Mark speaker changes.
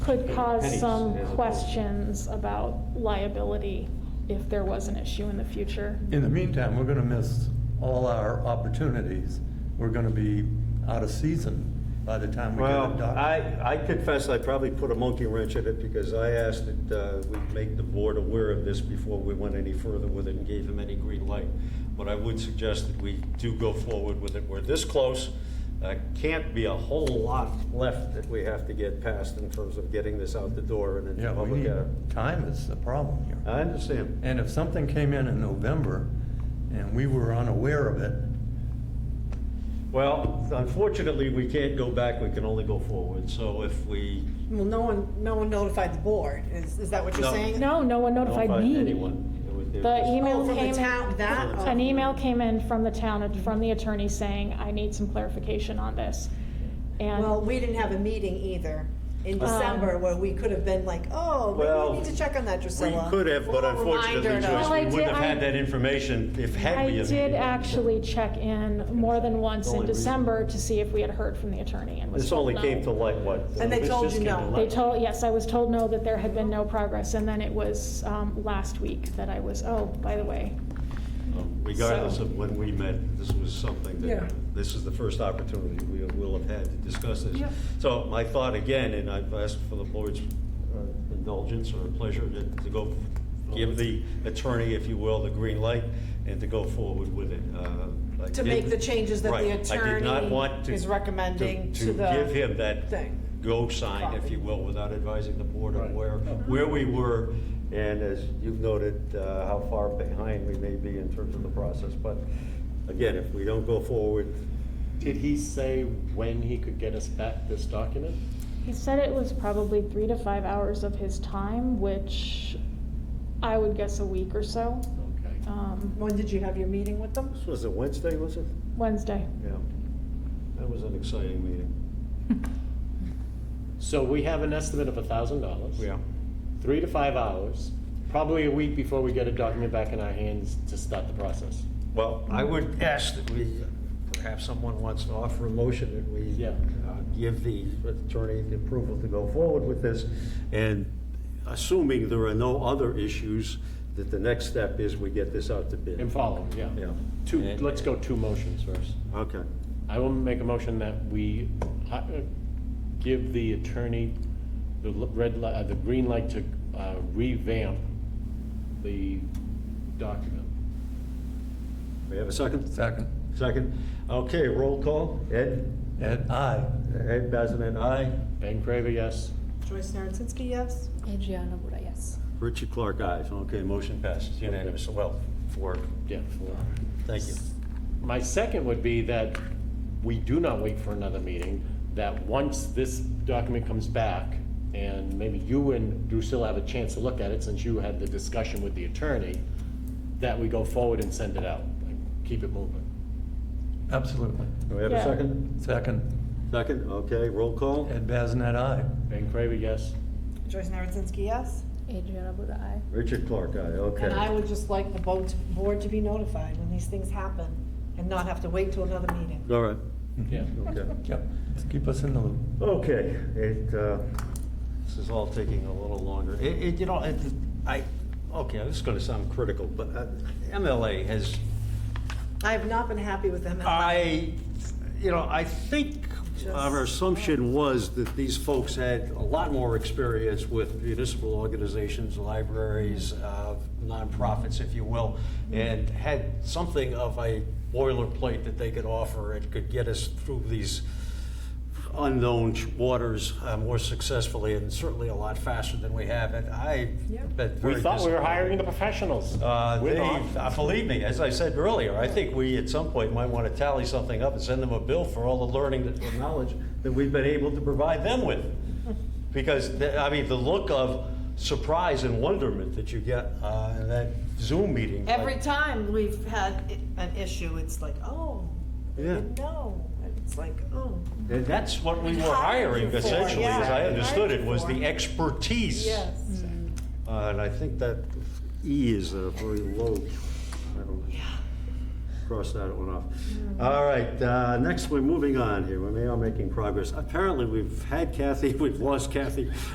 Speaker 1: could cause
Speaker 2: Pennies
Speaker 1: some
Speaker 2: as opposed to-
Speaker 1: questions about liability if there was an issue in the future.
Speaker 3: In the meantime, we're gonna miss all our opportunities. We're gonna be out of season by the time we get a
Speaker 2: Well, I,
Speaker 3: doctor.
Speaker 2: I confess I probably put a monkey wrench in it because I asked that uh, we make the board aware of this before we went any further with it and gave him any green light. But I would suggest that we do go forward with it. We're this close. Uh, Can't be a whole lot left that we have to get past in terms of getting this out the door and into
Speaker 3: Yeah, we
Speaker 2: public.
Speaker 3: need,
Speaker 2: uh,
Speaker 3: time is the problem here.
Speaker 2: I understand.
Speaker 3: And if something came in in November and we were unaware of it,
Speaker 2: Well, unfortunately, we can't go back. We can only go forward. So if we
Speaker 4: Well, no one, no one notified the board, is, is that what you're
Speaker 2: No.
Speaker 4: saying?
Speaker 1: No, no one notified
Speaker 2: notify
Speaker 1: me.
Speaker 2: anyone, it would- it would
Speaker 1: The
Speaker 2: just-
Speaker 1: email
Speaker 4: Oh, from the
Speaker 1: came.
Speaker 4: town, that-
Speaker 1: An email came in from the town, from the attorney saying, I need some clarification on this.
Speaker 4: Well,
Speaker 1: And,
Speaker 4: we didn't have a meeting either in
Speaker 1: Um,
Speaker 4: December where we could have been like, oh, maybe
Speaker 2: Well,
Speaker 4: we need to check on that,
Speaker 2: We
Speaker 4: Drusilla. Oh,
Speaker 2: could have, but
Speaker 4: Well,
Speaker 2: unfortunately,
Speaker 4: reminder to-
Speaker 2: Joyce,
Speaker 1: Well, I
Speaker 2: we wouldn't
Speaker 1: did-
Speaker 2: have had
Speaker 1: I-
Speaker 2: that information if had
Speaker 1: I
Speaker 2: we. have
Speaker 1: did
Speaker 2: had that.
Speaker 1: actually check in more than once in
Speaker 2: Only reason.
Speaker 1: December to see if we had heard from the attorney and was
Speaker 2: This
Speaker 1: told
Speaker 2: only
Speaker 1: no.
Speaker 2: came to light, what?
Speaker 4: And they
Speaker 2: this
Speaker 4: told
Speaker 2: just
Speaker 4: you
Speaker 2: came to
Speaker 4: no.
Speaker 1: They
Speaker 2: light.
Speaker 1: told, yes, I was told no, that there had been no progress, and then it was um, last week that I was, oh, by the way.
Speaker 2: Um, Regardless
Speaker 1: So-
Speaker 2: of when we met, this was something
Speaker 4: Yeah.
Speaker 2: that, this is the first opportunity we will have had to discuss this.
Speaker 1: Yeah.
Speaker 2: So my thought again, and I've asked for the board's uh, indulgence or pleasure to to go give the attorney, if you will, the green light and to go forward with it. Uh, I
Speaker 4: To
Speaker 2: did-
Speaker 4: make the changes that the
Speaker 2: Right. I did not
Speaker 4: attorney
Speaker 2: want to-
Speaker 4: is recommending to the
Speaker 2: give him that
Speaker 4: thing.
Speaker 2: go sign, if you will, without advising the board of
Speaker 5: Right.
Speaker 2: where, where we were. And as you've noted, uh, how far behind we may be in terms of the process. But again, if we don't go forward,
Speaker 5: Did he say when he could get us back this document?
Speaker 1: He said it was probably three to five hours of his time, which I would guess a week or so.
Speaker 5: Okay.
Speaker 1: Um,
Speaker 4: When did you have your meeting with them?
Speaker 2: this was a Wednesday, was it?
Speaker 1: Wednesday.
Speaker 2: Yeah. That was an exciting meeting.
Speaker 5: So we have an estimate of a thousand dollars. Three to five hours, probably a week before we get a document back in our hands to start the process.
Speaker 2: Well, I would ask that we, perhaps someone wants to offer a motion that we
Speaker 5: Yeah.
Speaker 2: uh, give the attorney the approval to go forward with this, and assuming there are no other issues, that the next step is we get this out to
Speaker 5: And
Speaker 2: bid.
Speaker 5: follow, yeah.
Speaker 2: Yeah.
Speaker 5: Two, let's go two motions first.
Speaker 2: Okay.
Speaker 5: I will make a motion that we uh, give the attorney the l- red light, uh, the green light to uh, revamp the document.
Speaker 2: We have a second?
Speaker 3: second,
Speaker 2: Second. Okay, roll call. Ed?
Speaker 3: and I,
Speaker 2: Ed Bazinet, aye.
Speaker 5: Ben Craver, yes?
Speaker 4: Joyce Narzinski, yes?
Speaker 6: Adriana Bura, yes.
Speaker 2: Richard Clark, aye. Okay, motion passes unanimous. Well, four.
Speaker 5: Yeah, for
Speaker 2: Thank you.
Speaker 5: My second would be that we do not wait for another meeting, that once this document comes back, and maybe you and Drusilla have a chance to look at it, since you had the discussion with the attorney, that we go forward and send it out, like, keep it moving.
Speaker 3: absolutely.
Speaker 2: Do we have a
Speaker 1: Yeah.
Speaker 2: second?
Speaker 3: Second,
Speaker 2: Second, okay, roll call.
Speaker 3: Ed Bazinet, I.
Speaker 5: Ben Craver, yes?
Speaker 4: Joyce Narzinski, yes?
Speaker 6: Adriana Bura, aye.
Speaker 2: Richard Clark, aye, okay.
Speaker 4: And I would just like the boat, board to be notified when these things happen and not have to wait till another meeting.
Speaker 2: All right,
Speaker 5: Yeah.
Speaker 2: okay.
Speaker 3: Yep, keep us in the loop.
Speaker 2: Okay, it, uh, this is all taking a little longer. It, it, you know, it, I, okay, this is gonna sound critical, but uh, MLA has,
Speaker 4: I have not been happy with them.
Speaker 2: I, you know, I think our assumption was that these folks had a lot more experience with municipal organizations, libraries, uh, nonprofits, if you will, and had something of a boilerplate that they could offer and could get us through these unknown waters uh, more successfully and certainly a lot faster than we have. And I
Speaker 4: Yep.
Speaker 2: bet very
Speaker 5: We thought we were
Speaker 2: disappointed.
Speaker 5: hiring the professionals.
Speaker 2: Uh,
Speaker 5: We're
Speaker 2: they-
Speaker 5: not.
Speaker 2: uh, Believe me, as I said earlier, I think we at some point might want to tally something up and send them a bill for all the learning that, or knowledge that we've been able to provide them with. Because, the- I mean, the look of surprise and wonderment that you get uh, in that Zoom meeting. like-
Speaker 4: Every time we've had i- an issue, it's like, oh, I
Speaker 2: Yeah.
Speaker 4: didn't know. And It's like, oh.
Speaker 2: And That's what we
Speaker 4: We
Speaker 2: were
Speaker 4: hired you
Speaker 2: hiring
Speaker 4: for,
Speaker 2: essentially,
Speaker 4: yeah,
Speaker 2: as I
Speaker 4: we
Speaker 2: understood
Speaker 4: hired
Speaker 2: it,
Speaker 4: you
Speaker 2: was
Speaker 4: for.
Speaker 2: the expertise. Uh, And I think that E is a very low, I don't know. Cross that one off. All right, uh, next, we're moving on here. We may are making progress. Apparently, we've had Kathy, we've lost Kathy.